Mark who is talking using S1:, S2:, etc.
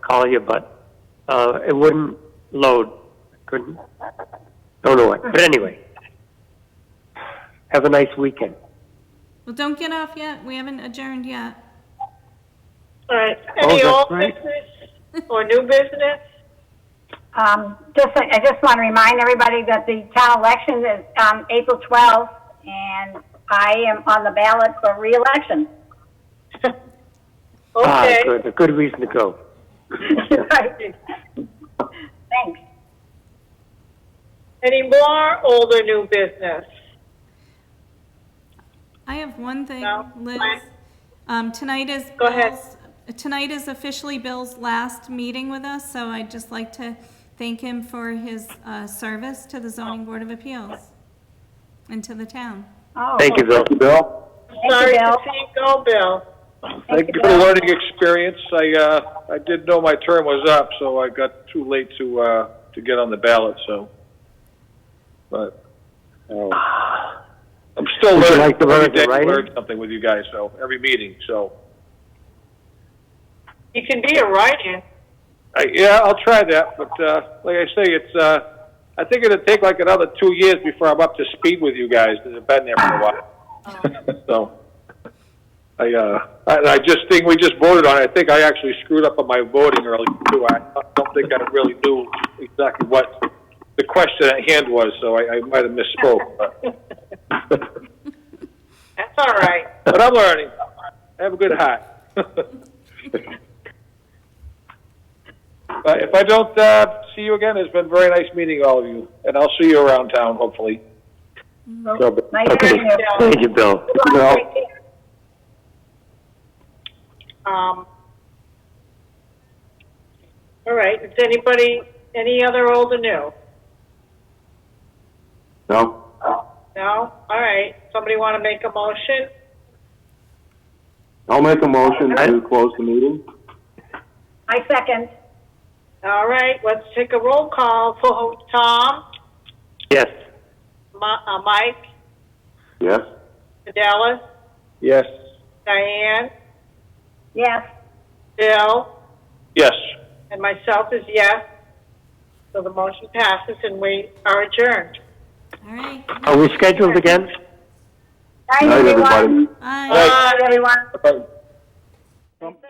S1: call you, but uh, it wouldn't load. Couldn't. Don't know what. But anyway, have a nice weekend.
S2: Well, don't get off yet. We haven't adjourned yet.
S3: All right,
S1: Oh,
S3: any
S1: that's
S3: old
S1: right.
S3: business or new business?
S4: Um, just, I just want to remind everybody that the town election is, um, April 12th, and I am on the ballot for reelection.
S1: Ah,
S3: Okay,
S1: good. A good reason to go.
S4: Thanks.
S3: any more old or new business?
S2: I have one thing,
S3: No,
S2: Liz.
S3: fine.
S2: Um, tonight is.
S3: Go ahead.
S2: Bill's- Tonight is officially Bill's last meeting with us, so I'd just like to thank him for his, uh, service to the zoning board of appeals and to the town.
S4: Oh,
S1: Thank you, Bill. Bill.
S4: you,
S3: Sorry to
S4: Bill.
S3: see you go, Bill.
S4: thank you,
S5: Good
S4: Bill.
S5: learning experience. I, uh, I did know my term was up, so I got too late to, uh, to get on the ballot, so. But, uh, I'm still
S1: Would you
S5: learning.
S1: like to learn
S5: Every day
S1: to
S5: I
S1: write
S5: learn something with you guys, so, every meeting, so.
S3: You can be a writer.
S5: I, Uh, yeah, I'll try that, but, uh, like I say, it's, uh, I think it'll take like another two years before I'm up to speed with you guys, because I've been there for a while. So, I, uh, I, I just think we just voted on it. I think I actually screwed up on my voting earlier too. I don't think I really knew exactly what the question at hand was, so I, I might have misspoke, but,
S3: That's all right.
S5: but I'm learning. I have a good heart. But if I don't, uh, see you again, it's been very nice meeting all of you, and I'll see you around town, hopefully.
S4: Nice
S1: Okay.
S4: meeting you.
S1: Thank you, Bill.
S4: Well, take care.
S3: Um, all right, is anybody, any other old or new?
S1: No.
S3: No? All right, somebody want to make a motion?
S6: I'll make a motion to close the meeting.
S4: I second.
S3: All right, let's take a roll call for Tom,
S1: Yes.
S3: Mi- uh, Mike,
S6: Yes?
S3: Dallas,
S5: Yes.
S3: Diane,
S4: Yes,
S3: Bill,
S5: Yes.
S3: and myself is yes. So the motion passes and we are adjourned.
S2: All right,
S1: Are we scheduled again?
S4: night,
S6: Night, everybody.
S4: everyone.
S2: bye.
S4: Night, everyone.
S5: Bye.
S4: Thanks,